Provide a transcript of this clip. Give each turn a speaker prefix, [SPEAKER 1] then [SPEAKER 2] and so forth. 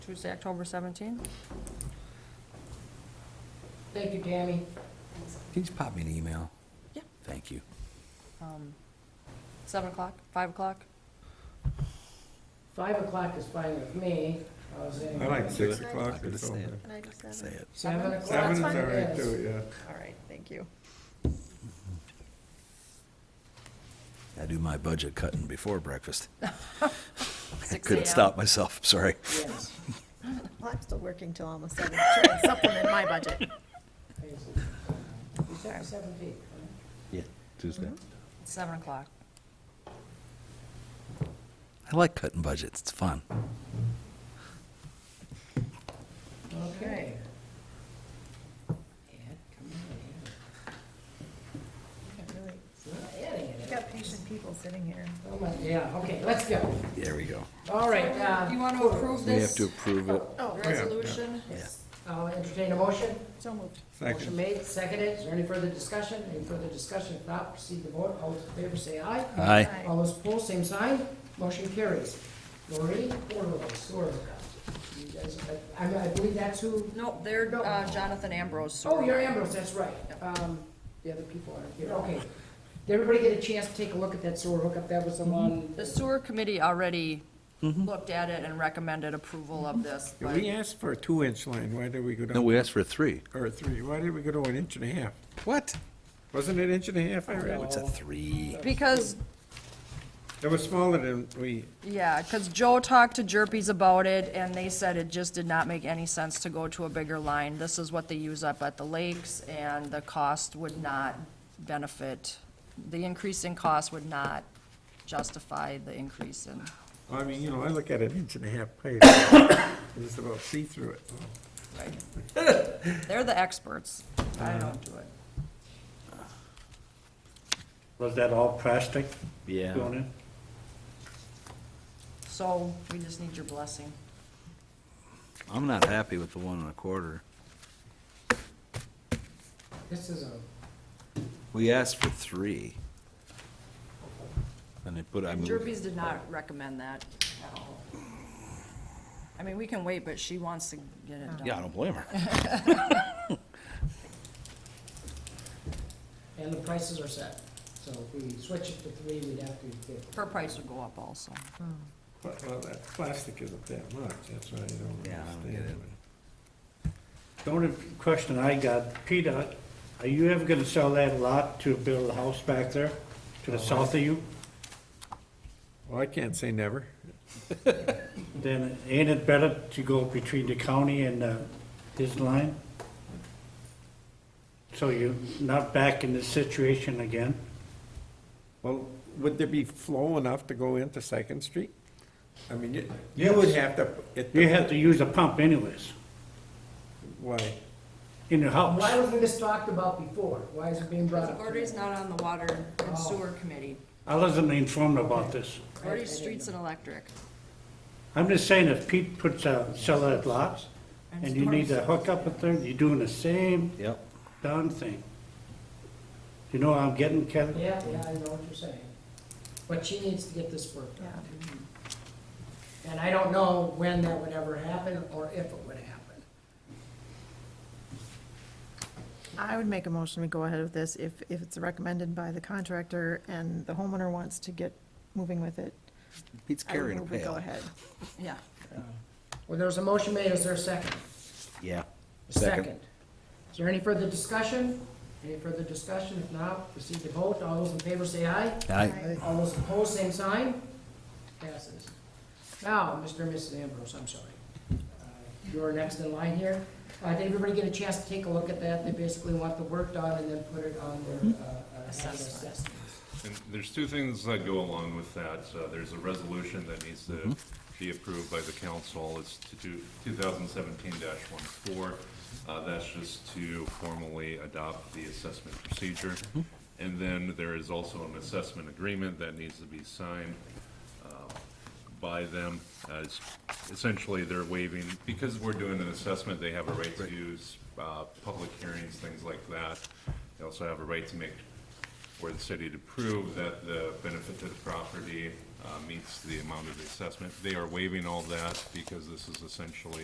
[SPEAKER 1] Tuesday, October 17th.
[SPEAKER 2] Thank you, Tammy.
[SPEAKER 3] Can you just pop me an email?
[SPEAKER 1] Yeah.
[SPEAKER 3] Thank you.
[SPEAKER 1] Um, 7 o'clock, 5 o'clock?
[SPEAKER 2] Five o'clock is fine with me. I was in-
[SPEAKER 4] I like six
[SPEAKER 1] Six
[SPEAKER 4] o'clock or
[SPEAKER 3] o'clock.
[SPEAKER 4] something.
[SPEAKER 1] Can I do seven?
[SPEAKER 3] Say it.
[SPEAKER 2] Seven o'clock.
[SPEAKER 4] Seven is all
[SPEAKER 1] That's fine.
[SPEAKER 4] right
[SPEAKER 2] Yes.
[SPEAKER 4] too, yeah.
[SPEAKER 1] All right, thank you.
[SPEAKER 3] I do my budget cutting before breakfast.
[SPEAKER 1] Six
[SPEAKER 3] Couldn't
[SPEAKER 1] AM.
[SPEAKER 3] stop myself, sorry.
[SPEAKER 2] Yes.
[SPEAKER 5] Well, I'm still working till almost seven, trying to supplement my budget.
[SPEAKER 2] You said seven feet.
[SPEAKER 3] Yeah, Tuesday.
[SPEAKER 1] 7 o'clock.
[SPEAKER 3] I like cutting budgets, it's fun.
[SPEAKER 2] Okay. Ed, come on, Ed. Ed,
[SPEAKER 5] We've
[SPEAKER 2] Ed.
[SPEAKER 5] got patient people sitting here.
[SPEAKER 2] Oh my- Yeah, okay, let's go.
[SPEAKER 3] There we go.
[SPEAKER 2] All right, uh,
[SPEAKER 1] You want to approve
[SPEAKER 6] We have
[SPEAKER 1] this
[SPEAKER 6] to approve it.
[SPEAKER 5] Oh,
[SPEAKER 1] resolution?
[SPEAKER 2] I'll entertain a motion.
[SPEAKER 5] so moved.
[SPEAKER 2] Motion
[SPEAKER 4] Second,
[SPEAKER 2] made, seconded. Is there any further discussion? Any further discussion? If not, proceed to vote. All those in favor say aye.
[SPEAKER 3] Aye.
[SPEAKER 5] Aye.
[SPEAKER 2] All those opposed, same sign. Motion carries. Lori, Orlov, sewer hookup. You guys- I I believe that's who,
[SPEAKER 1] No, they're uh, Jonathan Ambrose.
[SPEAKER 2] oh, you're Ambrose, that's right. Um, The other people aren't here, okay. Did everybody get a chance to take a look at that sewer hookup? That was the one,
[SPEAKER 1] The sewer committee already looked at it and recommended approval of this,
[SPEAKER 4] Yeah,
[SPEAKER 1] but
[SPEAKER 4] we asked for a two-inch line, why did we go
[SPEAKER 6] No,
[SPEAKER 4] down,
[SPEAKER 6] we asked for three.
[SPEAKER 4] or a three, why did we go to an inch and a half?
[SPEAKER 3] What?
[SPEAKER 4] Wasn't it inch and a half, I
[SPEAKER 3] Oh,
[SPEAKER 4] read?
[SPEAKER 3] it's a three.
[SPEAKER 1] because
[SPEAKER 4] It was smaller than we,
[SPEAKER 1] Yeah, because Joe talked to Jerpies about it, and they said it just did not make any sense to go to a bigger line. This is what they use up at the lakes, and the cost would not benefit, the increase in cost would not justify the increase in,
[SPEAKER 4] I mean, you know, I look at an inch and a half pipe, it's about see through it.
[SPEAKER 1] right? They're the experts. I don't do it.
[SPEAKER 7] Was that all plastic
[SPEAKER 6] Yeah.
[SPEAKER 7] going in?
[SPEAKER 1] So we just need your blessing.
[SPEAKER 6] I'm not happy with the one and a quarter.
[SPEAKER 2] this is a,
[SPEAKER 6] We asked for three. And they put, I moved,
[SPEAKER 1] Jerpies did not recommend that at all. I mean, we can wait, but she wants to get it done.
[SPEAKER 3] Yeah, I don't blame her.
[SPEAKER 2] and the prices are set. So if we switch it to three, we'd have to get
[SPEAKER 1] Her price would go up also.
[SPEAKER 4] But, well, that plastic isn't that much, that's why I don't
[SPEAKER 3] Yeah, I don't get it.
[SPEAKER 4] understand.
[SPEAKER 7] The only question I got, Peter, are you ever gonna sell that lot to build a house back there to the south of you?
[SPEAKER 4] Well, I can't say never.
[SPEAKER 7] Then ain't it better to go between the county and uh, his line? So you're not back in this situation again?
[SPEAKER 4] Well, would there be flow enough to go into Second Street? I mean, you, you would have to. it-
[SPEAKER 7] You have to use a pump anyways,
[SPEAKER 4] Why?
[SPEAKER 7] in the
[SPEAKER 2] Um, Why
[SPEAKER 7] house.
[SPEAKER 2] wasn't this talked about before? Why is it being brought up?
[SPEAKER 1] Gordy's not on the water and
[SPEAKER 2] Oh.
[SPEAKER 1] sewer committee.
[SPEAKER 7] I wasn't informed about this.
[SPEAKER 1] Gordy's
[SPEAKER 2] I didn't
[SPEAKER 1] streets and electric.
[SPEAKER 7] I'm just saying if Pete puts a, sell that lot, and you need to hook up with them, you're doing the same
[SPEAKER 6] yep.
[SPEAKER 7] darn thing. You know what I'm getting, Kevin?
[SPEAKER 2] Yeah, yeah, I know what you're saying. But she needs to get this worked out. And I don't know when that would ever happen or if it would happen.
[SPEAKER 5] I would make a motion to go ahead with this if, if it's recommended by the contractor and the homeowner wants to get moving with it.
[SPEAKER 3] Pete's
[SPEAKER 5] I would
[SPEAKER 3] carrying a
[SPEAKER 5] move we go
[SPEAKER 3] pail.
[SPEAKER 5] ahead.
[SPEAKER 1] Yeah.
[SPEAKER 2] Well, there was a motion made, is there a second?
[SPEAKER 3] Yeah.
[SPEAKER 2] A
[SPEAKER 3] Second.
[SPEAKER 2] Is there any further discussion? Any further discussion? If not, proceed to vote. All those in favor say aye.
[SPEAKER 3] I,
[SPEAKER 2] All those opposed, same sign. Passes. Now, Mr. and Mrs. Ambrose, I'm sorry. Uh, You're next in line here. Uh, Did everybody get a chance to take a look at that? They basically want the work done and then put it on their uh, uh,
[SPEAKER 1] Assessment.
[SPEAKER 2] assessment.
[SPEAKER 8] And there's two things that go along with that. Uh, There's a resolution that needs to be approved by the council. It's to do 2017-14. Uh, That's just to formally adopt the assessment procedure. And then there is also an assessment agreement that needs to be signed by them as essentially they're waiving, because we're doing an assessment, they have a right to use, uh, public hearings, things like that. They also have a right to make, for the city to prove that the benefit to the property, uh, meets the amount of the assessment. They are waiving all that because this is essentially